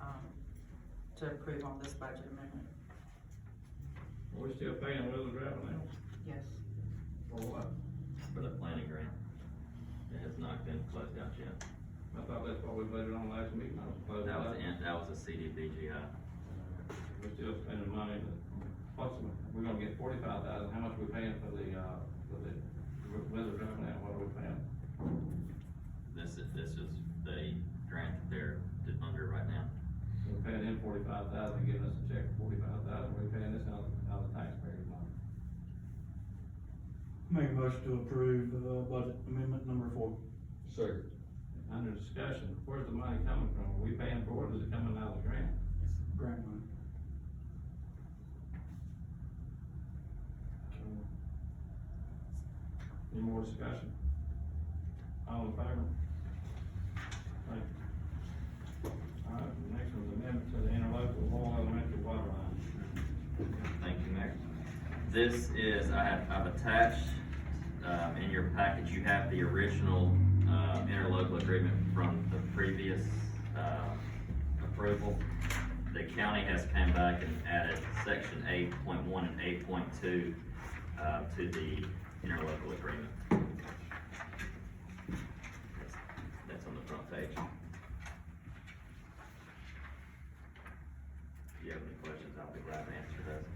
um, to approve on this budget amendment. We're still paying Wheeler Drive now. Yes. For what? for the planning grant. It has not been closed out yet. I thought that's what we voted on last meeting. I was supposed That was, to- in- that was a CDBGI. We're still spending money, but what's, we're gonna get forty-five thousand, how much we paying for the, uh, for the weather drive now, what are we paying? This is, this is the grant that they're under right now. We're paying in forty-five thousand, giving us a check for forty-five thousand, we're paying this out, out of taxpayers' money. Make a motion to approve, uh, budget amendment number four. Second. Under discussion, where's the money coming from? Are we paying for it, or is it coming out of the grant? Grant money. Any more discussion? All in favor? Thank you. All right, the next one's amendment to the interlocal Law Elementary water line. Thank you, Mayor. This is, I have, I've attached, um, in your package, you have the original, uh, interlocal agreement from the previous, uh, approval. The county has come back and added section eight point one and eight point two, uh, to the interlocal agreement. That's- That's on the front page. If you have any questions, I'll be glad to answer those.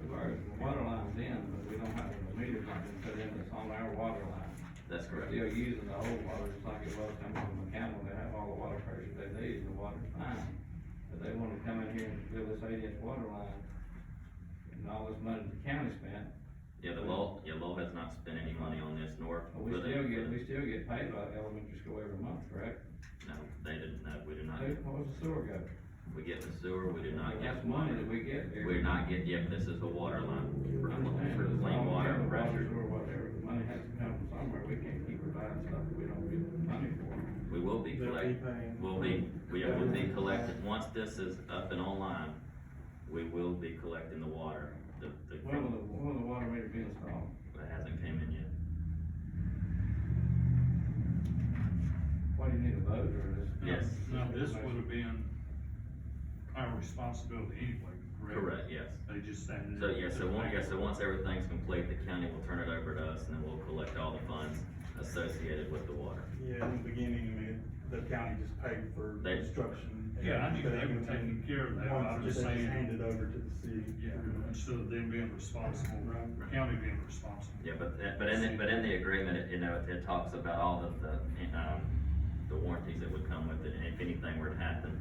We've already, the water line's in, but we don't have the meter line put in, it's on our water line. That's We're correct. still using the old water, just like it was coming from the camel, they have all the water pressure they need, and the water's fine. But they wanna come in here and build this eight inch water line, and all this money the county spent, Yeah, the law, yeah, law has not spent any money on this nor. but we for the- still get, we still get paid by the elementary school every month, correct? No, they didn't, no, we do not, Who, what was the sewer go? we get the sewer, we do not That's get. money that we get. every- We're not get, yeah, this is a water line for, I understand, for it's all clean water the and pressure. Or whatever, the money has to come from somewhere, we can't keep providing stuff that we don't get money for. We will be They'll be collect, paying. will be, we will be collected, once this is up and online, we will be collecting the water. The, the, When will it the, when will the water meter be installed? hasn't came in yet. What, do you need a vote or is? Yes. Now, this would have been our responsibility anyway, correct? Correct, yes. They just signed it. So, yeah, so one, yeah, so once everything's complete, the county will turn it over to us and then we'll collect all the funds associated with the water. Yeah, in the beginning, I mean, the county just paid for They- construction. and Yeah, I knew they were everything. taking care of that, but I'm Once just they just saying, handed over to the city. yeah, instead of them being responsible, Right. county being responsible. Yeah, but, that- but in, the- but in the agreement, it- you know, it- it talks about all of the, um, the warranties that would come with it, and if anything were to happen,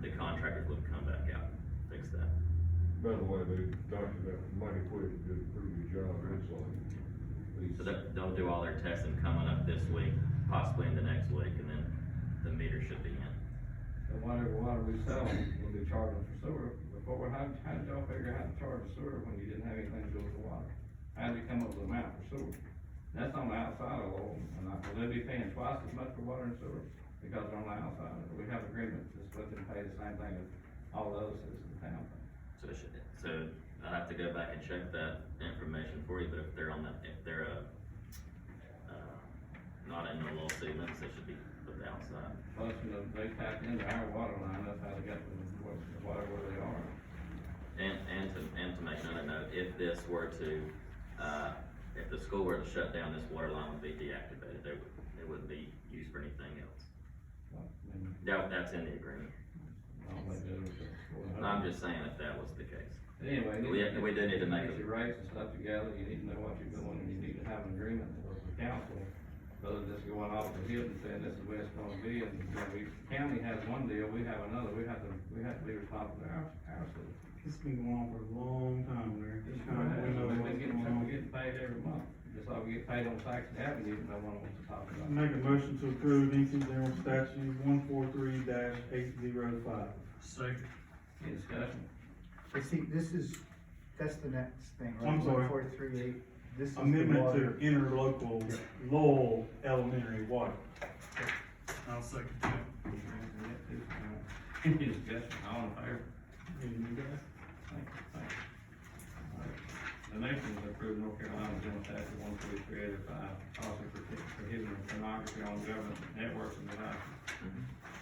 the contractors would come back out, and fix that. By the way, they doctored that mighty quick, and did a pretty good job, it looks like. So they'll, they'll do all their testing coming up this week, possibly in the next week, and then the meter should be in. And whatever water we sell, we'll be charging for sewer. Before, how, how did y'all figure out to charge for sewer when you didn't have anything to do with the water? How did you come up with the amount for sewer? That's on the outside of Lowell, and I, will they be paying twice as much for water and sewer? Because they're on the outside, of it. we have agreements, just let them pay the same thing as all the other citizens in town. So it should, so I'll have to go back and check that information for you, but if they're on the, if they're, uh, uh, not in the low sea limits, they should be put outside. Plus, you know, they tapped into our water line, that's how they got the, the water where they are. And, and to, and to make another note, if this were to, uh, if the school were to shut down, this water line would be deactivated, there would, it wouldn't be used for anything else. But, I mean, That, that's in the agreement, I don't think they would- I'm just saying if that was the case. Anyway. We- we do need to make a- Your rates and stuff together, you need to know what you're doing, and you need to have an agreement with the council. Rather than just going off the hip and saying this is where it's gonna be, and, you know, we, county has one deal, we have another, we have to, we have to be responsible to our, our city. It's been going on for a long time there. We've Kind of, we know what's been getting, going we're on. getting paid every month, just like we get paid on taxes Avenue, and no one wants to talk about it. Make a motion to approve NC General Statute one four three eight zero five. Second, Any discussion? But see, this is, that's the next thing, right? I'm sorry. One four three eight, this is the Amendment water. to interlocal Lowell Elementary water. I'll second that. Any discussion, all in favor? And you guys? Thank you, thank you. All right. The next one is approve North Carolina General Statute one three three eight oh five, policy protect- prohibiting pornography on government networks and devices. Mhm.